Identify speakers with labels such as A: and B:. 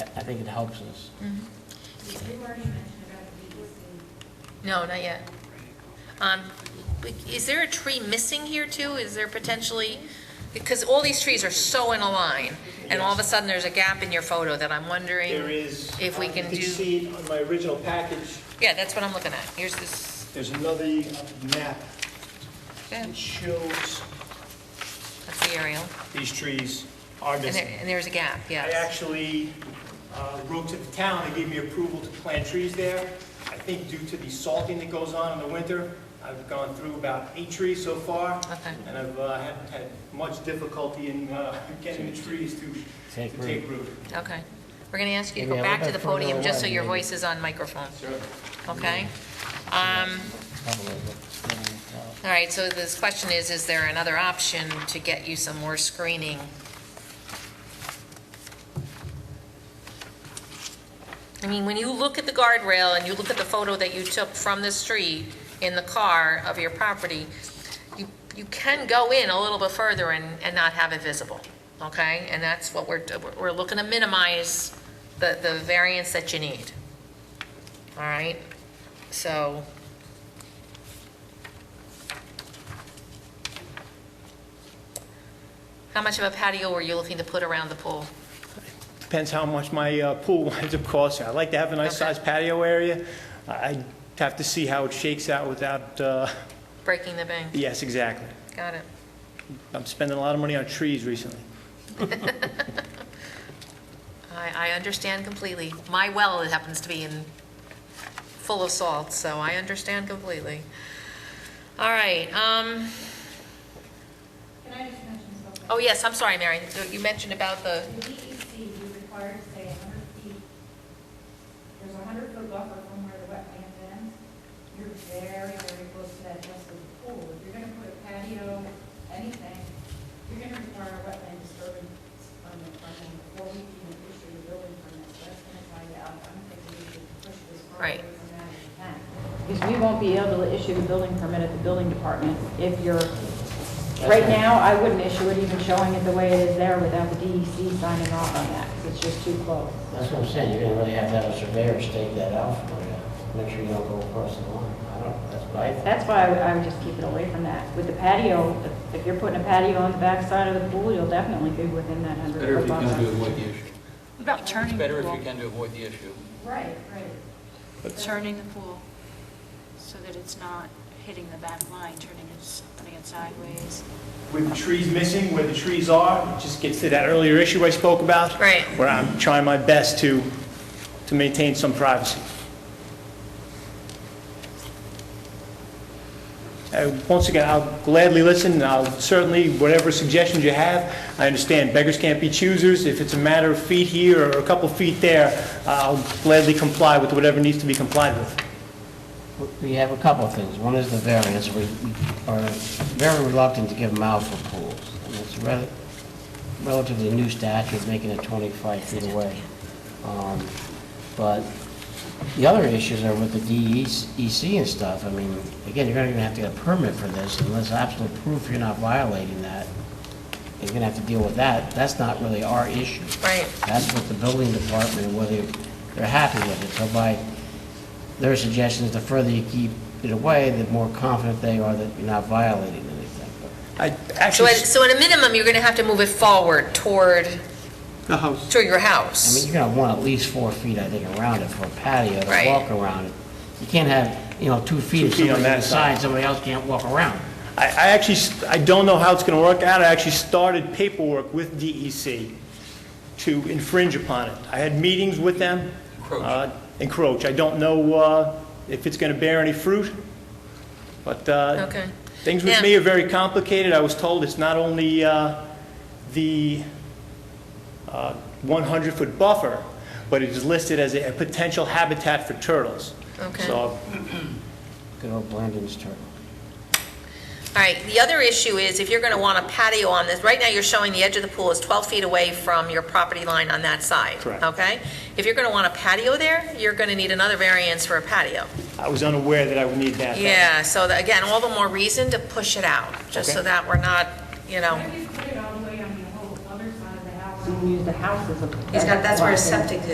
A: I think it helps us.
B: Mhm.
C: You've already mentioned about the BEC.
B: No, not yet. Um, Is there a tree missing here too? Is there potentially, because all these trees are so in a line, and all of a sudden there's a gap in your photo that I'm
D: There
B: wondering,
D: is.
B: if we
D: um,
B: can
D: You
B: do-
D: can see it on my original package,
B: yeah, that's what I'm looking at. Here's this,
D: there's another map
B: yeah,
D: that shows
B: that's the aerial,
D: these trees are
B: and
D: missing.
B: there, and there's a gap,
D: I
B: yes.
D: actually uh, wrote to the town, they gave me approval to plant trees there. I think due to the salting that goes on in the winter, I've gone through about eight trees so far.
B: Okay.
D: And I've uh, had had much difficulty in uh, getting the trees to
A: Take
D: to take
A: root.
D: root.
B: Okay. We're going to ask you to
A: Maybe a
B: go back to
A: little
B: the
A: bit further
B: podium, just so
A: away,
B: your
A: maybe.
B: voice is on microphone,
D: Sure.
B: okay? Um,
A: All
B: All right, so this question is, is there another option to get you some more screening? I mean, when you look at the guardrail and you look at the photo that you took from the street in the car of your property, you, you can go in a little bit further and, and not have it visible, okay? And that's what we're, we're looking to minimize the, the variance that you need. All right? So, how much of a patio were you looking to put around the pool?
D: Depends how much my uh, pool winds up costing. I'd like to have a nice
B: Okay.
D: sized patio area. I- I'd have to see how it shakes out without, uh,
B: Breaking the bank,
D: yes, exactly.
B: got it.
D: I'm spending a lot of money on trees recently.
B: I, I understand completely. My well happens to be in, full of salt, so I understand completely. All right, um,
C: Can I just mention something?
B: oh yes, I'm sorry, Mary, you mentioned about the,
C: The DEC, you required to stay hundred feet. There's a hundred foot buffer from where the wetland ends. You're very, very close to that just of the pool. If you're gonna put a patio, anything, you're gonna require a wetland disturbance permit from them before we can issue a building permit. So that's gonna find out. I'm thinking we should push this far away
B: Right.
C: from that if we can. Because we won't be able to issue the building permit at the building department if you're, right now, I wouldn't issue it even showing it the way it is there without the DEC signing off on that, because it's just too close.
E: That's what I'm saying, you're gonna really have to have a surveyor stake that out for you, make sure you don't go across the line. I don't, that's what I think.
C: That's why I would, I would just keep it away from that. With the patio, if you're putting a patio on the backside of the pool, you'll definitely be within that hundred
F: Better if
C: foot
F: you can to
C: buffer.
F: avoid the issue.
G: About
F: It's
G: turning the
F: better if you
G: pool,
F: can to avoid the issue.
C: Right, right.
G: turning the pool, so that it's not hitting the back line, turning it, putting it sideways.
D: With the trees missing, where the trees are, it just gets to that earlier issue I spoke about.
B: Right.
D: Where I'm trying my best to, to maintain some privacy. Uh, Once again, I'll gladly listen, and I'll certainly, whatever suggestions you have, I understand beggars can't be choosers. If it's a matter of feet here or a couple feet there, I'll gladly comply with whatever needs to be complied with.
E: We have a couple of things. One is the variance, we we are very reluctant to give them out for pools. And it's rel- relatively new statute, making it 25 feet away. Um, But the other issues are with the DEC and stuff. I mean, again, you're not even have to get a permit for this unless absolute proof you're not violating that. You're gonna have to deal with that. That's not really our issue.
B: right,
E: That's what the building department, whether they're happy with it. So by their suggestions, the further you keep it away, the more confident they are that you're not violating anything.
D: I
B: so
D: actually,
B: at, so at a minimum, you're gonna have to move it forward toward,
D: the house.
B: toward your
E: I mean,
B: house.
E: you're gonna want at least four feet, I think, around it for a patio to
B: Right.
E: walk around. it. You can't have, you know, two feet if
D: Two feet on
E: somebody's
D: that
E: inside,
D: side.
E: somebody else can't walk around.
D: I, I actually, s- I don't know how it's going to work out. I actually started paperwork with DEC to infringe upon it. I had meetings with them.
F: Encroach.
D: uh, Encroach. I don't know uh, if it's going to bear any fruit, but uh,
B: Okay.
D: things with
B: Now-
D: me are very complicated. I was told it's not only uh, the uh, 100-foot buffer, but it is listed as a a potential habitat for turtles.
B: Okay.
D: So
E: Good old Blandings turtle.
B: All right, the other issue is if you're going to want a patio on this, right now you're showing the edge of the pool is 12 feet away from your property line on that side.
D: Correct.
B: Okay? If you're going to want a patio there, you're going to need another variance for a patio.
D: I was unaware that I would need that.
B: Yeah, so that- again, all the more reason to push it out, just so
D: Okay.
B: that we're not, you know,
C: What if you put it all the way on the whole other side of the house? You can use the house as a.
B: he's got, that's where his
C: Block in.
B: septic